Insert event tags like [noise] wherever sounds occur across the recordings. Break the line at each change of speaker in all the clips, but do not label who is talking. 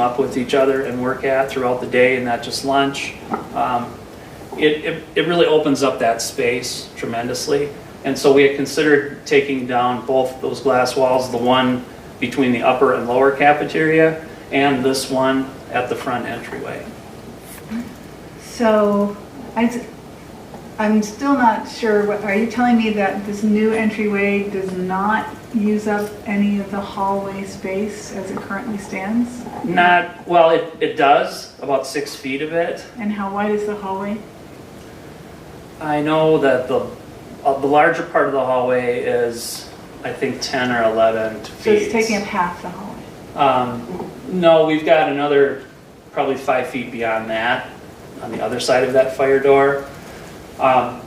up with each other and work at throughout the day and not just lunch. Um, It, it, it really opens up that space tremendously. And so we had considered taking down both those glass walls, the one between the upper and lower cafeteria and this one at the front entryway.
So, I, am still not sure, what- are you telling me that this new entryway does not use up any of the hallway space as it currently stands?
Not, well, it, it does, about six feet of it.
And how wide is the hallway?
I know that the, uh, the larger part of the hallway is, I think, 10 or 11 feet.
So it's taking up half the hallway.
Um, no, we've got another probably five feet beyond that, on the other side of that fire door. Um,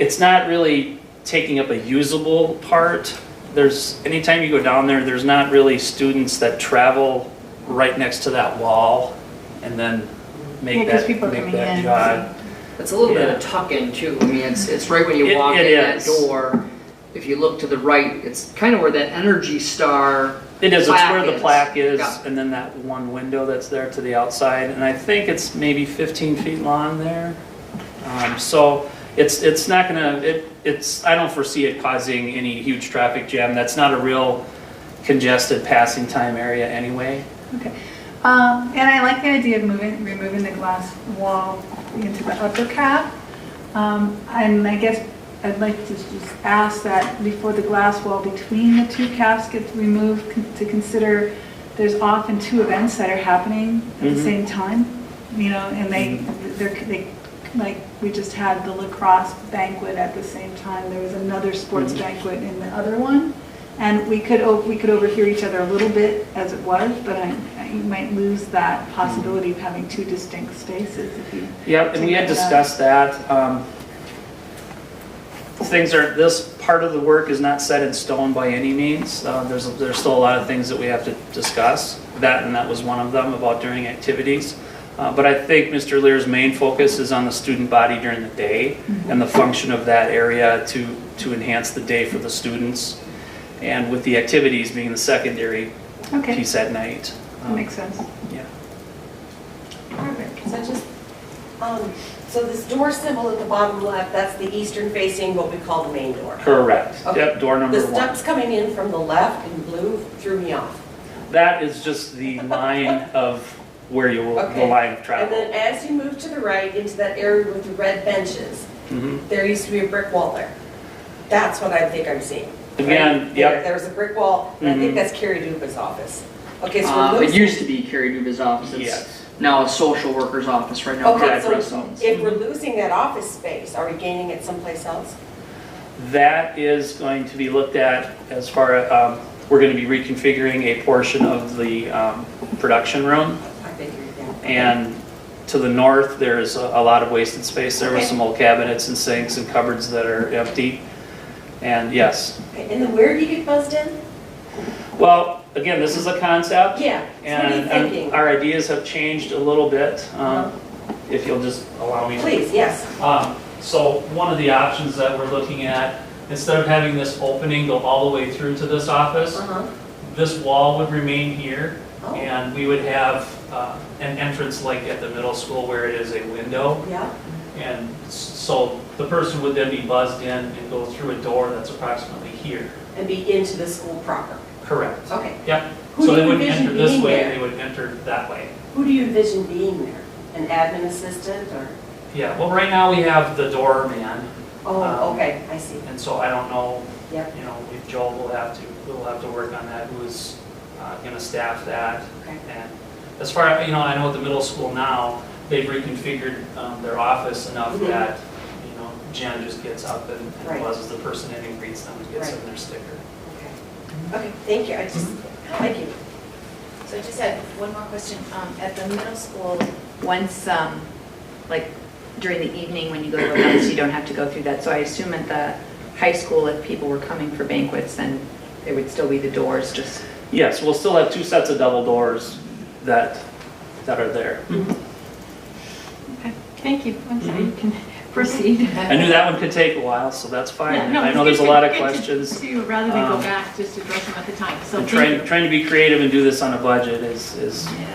it's not really taking up a usable part. There's, anytime you go down there, there's not really students that travel right next to that wall and then
Yeah,
make
'cause
that,
people are
make
coming
that
in.
jog.
It's a little bit of
Yeah.
a tuck-in too. I mean, it's, it's right when you
It-
walk
it
in that
is.
door. If you look to the right, it's kind of where that Energy Star.
It is, it's where
plaque
the
is.
plaque is,
Yeah.
and then that one window that's there to the outside, and I think it's maybe 15 feet long there. Um, So it's, it's not gonna, it, it's, I don't foresee it causing any huge traffic jam. That's not a real congested passing time area anyway.
Okay. Um, and I like the idea of moving, removing the glass wall into the upper cap. Um, and I guess I'd like to just ask that before the glass wall between the two caps gets removed, con- to consider there's often two events that are happening at the
Mhm.
same time, you know, and they, they're, they, like, we just had the lacrosse banquet at the same time. There was another sports
Mhm.
banquet in the other one. And we could, o- we could overhear each other a little bit as it was, but I, I- you might lose that possibility of having two distinct spaces if you,
Yep, and we had
Take that.
discussed that. um, Things are, this part of the work is not set in stone by any means. Uh, There's, there's still a lot of things that we have to discuss. That, and that was one of them, about during activities. Uh, But I think Mr. Lear's main focus is on the student body during the day and the function of that area to, to enhance the day for the students. And with the activities being the secondary
okay,
piece at night.
that makes sense.
Yeah.
Perfect.
So just, um, so this door symbol at the bottom left, that's the eastern facing, what we call the main door.
Correct.
Okay.
Yep, door number
The
one.
steps coming in from the left in blue threw me off.
That is just
[laughs]
the line of where you will, the
Okay.
line of
And then
travel.
as you move to the right into that area with the red benches,
Mhm.
there used to be a brick wall there. That's what I think I'm seeing.
Again,
Right there,
yep,
There was a brick wall, and I
Mhm.
think that's Carrie Duba's office. Okay, so
Uh,
we're
it used
losing,
to be Carrie Duba's office. It's
yes.
Now a social worker's office right now.
Okay,
Brad
so-
Russell's.
if we're losing that office space, are we gaining it someplace else?
That is going to be looked at as far, as um, we're going to be reconfiguring a portion of the, um, production room.
I figured that.
And to the north, there's a a lot of wasted space. There were
Okay.
some old cabinets and sinks and cupboards that are empty. And yes,
Okay, And then where do you get buzzed in?
well, again, this is a concept.
Yeah, so what are you
And and
thinking? Uh-huh.
our ideas have changed a little bit, um, if you'll just allow me to
Please, yes.
Um, So one of the options that we're looking at, instead of having this opening go all the way through to this office,
Uh-huh.
this wall would remain here,
Oh.
and we would have uh, an entrance like at the middle school where it is a window.
Yeah,
And s- so the person would then be buzzed in and go through a door that's approximately here.
and be into the school proper.
Correct.
Okay.
Yep.
Who
So
do
they
you
wouldn't enter
envision
this
being
way, they
there?
would enter that way.
Who do you envision being there? An admin assistant or?
Yeah, well, right now we have the doorman,
Oh,
Um,
okay, I see.
and so I don't know
Yep,
you know, if Joel will have to, we'll have to work on that, who's uh, gonna staff that.
okay.
And as far, you know, I know at the middle school now, they've reconfigured um, their office enough
Mm-hmm.
Mhm.
that, you know, Jen just gets up and and
Right.
buzzes the person in and greets them and gets
Right.
them their sticker.
Okay, Okay. thank you. I just,
mm-hmm.
thank you.
So I just had one more question. Um, At the middle school, once, um, like during the evening when you go to events, you don't have to go through that. So I assume at the high school, if people were coming for banquets, then there would still be the doors just.
Yes, we'll still have two sets of double doors that, that are there.
Thank you. I'm sorry, you
Mhm.
can [laughs] proceed.
I knew that one could take a while, so that's fine.
Yeah, no,
I know
it's
there's a
good-
lot of
good to-
questions.
to- Rather than
Um,
go back, just address them at the time, so
And
thank you.
trying, trying to be creative and do this on a budget is, is